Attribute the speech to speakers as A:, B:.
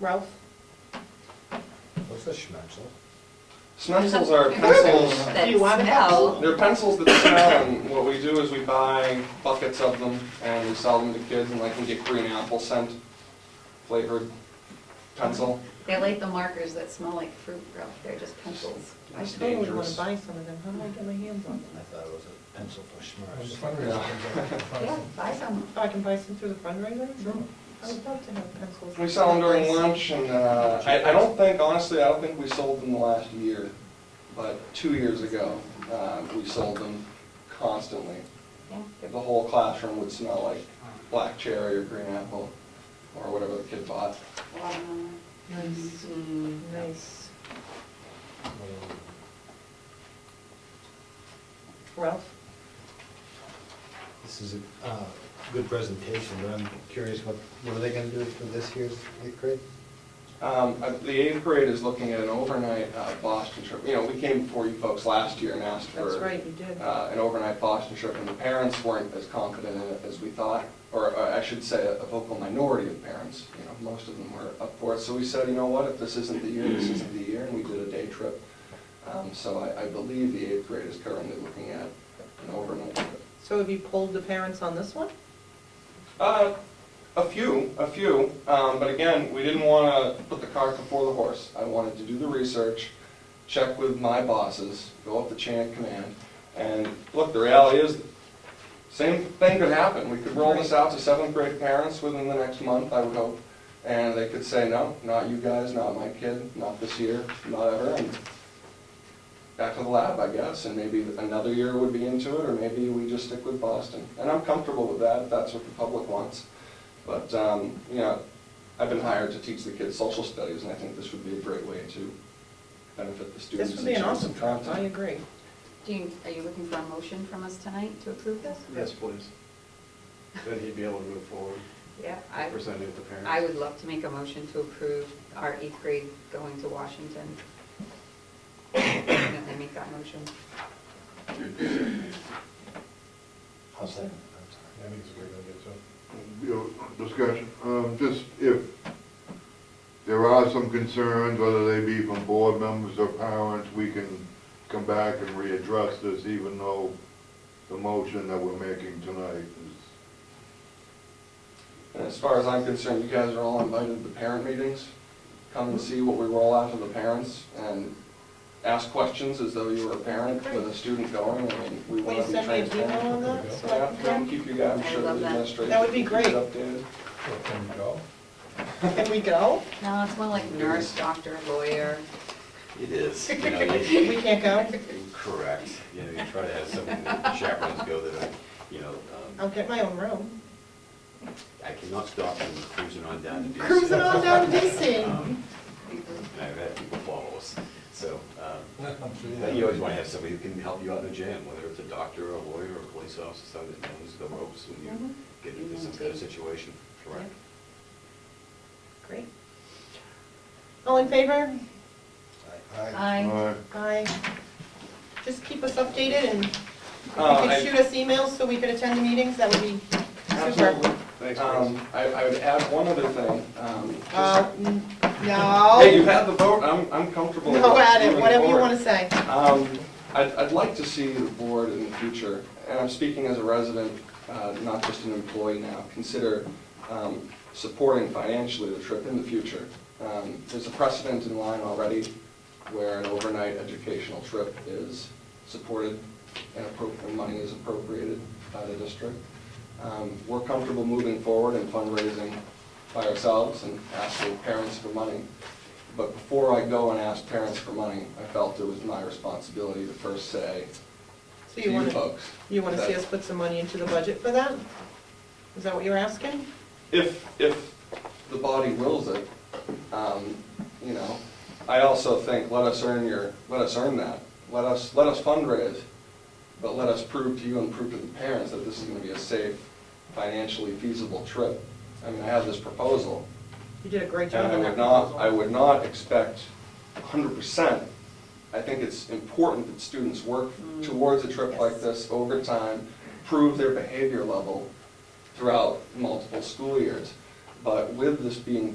A: Ralph?
B: What's a schmetzel?
C: Schnitzels are pencils,
A: Do you want to have
D: smell.
C: they're pencils that smell, and what we do is we buy buckets of them, and we sell them to kids, and like, we get green apple scent flavored pencil.
D: They like the markers that smell like fruit, Ralph, they're just pencils.
A: I
C: It's
A: totally want
C: dangerous.
A: to buy some of them. How am I get my hands on
B: I
A: them?
B: thought it was a pencil for schmarts.
D: Yeah, buy some.
A: Oh, I can buy some through the fundraiser?
B: Sure.
A: I would love to have pencils.
C: We sell them during lunch, and uh, I I don't think, honestly, I don't think we sold them the last year, but two years ago, uh, we sold them constantly.
D: Yeah, they're-
C: The whole classroom would smell like black cherry or green apple, or whatever the kid bought.
D: watermelon.
A: Nice.
D: Mm.
A: Nice. Ralph?
B: This is a uh, good presentation, but I'm curious, what, what are they gonna do for this year's eighth grade?
C: Um, uh, The eighth grade is looking at an overnight uh, Boston trip. You know, we came before you folks last year and asked for.
A: That's right, you did.
C: uh, An overnight Boston trip, and the parents weren't as confident in it as we thought, or uh, I should say, a vocal minority of parents. You know, most of them were up for it. So we said, you know what, if this isn't the year, this isn't the year, and we did a day trip. Um, So I I believe the eighth grade is currently looking at an overnight trip.
A: So have you polled the parents on this one?
C: Uh, a few, a few, um, but again, we didn't wanna put the cart before the horse. I wanted to do the research, check with my bosses, go up the chain of command, and look, the reality is, same thing could happen. We could roll this out to seventh grade parents within the next month, I would hope, and they could say, no, not you guys, not my kid, not this year, not ever, and back to the lab, I guess, and maybe another year would be into it, or maybe we just stick with Boston. And I'm comfortable with that, if that's what the public wants. But, um, you know, I've been hired to teach the kids social studies, and I think this would be a great way to benefit the students.
A: This would be
C: and
A: an
C: share
A: awesome
C: some
A: trip,
C: content.
A: I agree.
D: Do you, are you looking for a motion from us tonight to approve this?
E: Yes, please. Then he'd be able to move forward,
D: Yeah, I,
E: present it to parents.
D: I would love to make a motion to approve our eighth grade going to Washington. Definitely make that motion.
B: I'll second. I think it's a great idea, too.
F: you know, discussion, um, just if there are some concerns, whether they be from board members or parents, we can come back and readdress this, even though the motion that we're making tonight is,
C: And as far as I'm concerned, you guys are all invited to parent meetings. Come and see what we roll out to the parents and ask questions as though you were a parent with a student going. I mean, we
A: Will
C: want
A: you
C: to be
A: send me an
C: transparent.
A: email on that? so I can
C: Yeah, we'll
A: come?
C: keep you guys, I'm
D: I
C: sure the
D: love that.
C: administration.
A: That would be
C: keeps
A: great.
C: it updated.
B: Can we go?
A: Can we go?
D: No, it's more like nurse, doctor, lawyer.
G: It is, you know, you-
A: We can't go?
G: correct, you know, you try to have some chaperones go that, are, you know, um,
A: I'll get my own room.
G: I cannot stop them cruising on down to DC.
A: Cruising on down to DC.
G: Um, I've had people follow us, so, um, but you always want to have somebody who can help you out in the jam, whether it's a doctor, or a lawyer, or a police officer, somebody that knows the ropes when
D: Mhm.
A: Mm-hmm.
G: you get into some kind of situation, correct?
A: Great. All in favor?
B: Aye.
D: I,
F: uh,
A: Aye. Just keep us updated and if you
C: Uh,
A: could
C: I-
A: shoot us emails so we could attend the meetings, that would be super.
E: Thanks, Chris.
C: Um, I, I would add one other thing. um, just-
A: Uh, n-
C: Hey, you
A: No,
C: had the vote, I'm, I'm comfortable.
A: no at it,
C: moving
A: whatever you
C: forward.
A: want to say.
C: Um, I'd, I'd like to see the board in the future, and I'm speaking as a resident, uh, not just an employee now, consider um, supporting financially the trip in the future. Um, There's a precedent in line already where an overnight educational trip is supported and appro- and money is appropriated by the district. Um, We're comfortable moving forward and fundraising by ourselves and asking parents for money. But before I go and ask parents for money, I felt it was my responsibility to first say
A: So
C: to
A: you
C: you
A: want to,
C: folks.
A: you want to see
C: that
A: us put some money into the budget for that? Is that what you're asking?
C: If, if the body wills it, um, you know, I also think, let us earn your, let us earn that. Let us, let us fundraise, but let us prove to you and prove to the parents that this is gonna be a safe, financially feasible trip. I mean, I have this proposal,
A: You did a great
C: And
A: job
C: Uh, I
A: on
C: would
A: that
C: not, I
A: proposal.
C: would not expect hundred percent. I think it's important that students work towards a trip like
A: Mm. Yes.
C: this over time, prove their behavior level throughout multiple school years. But with this being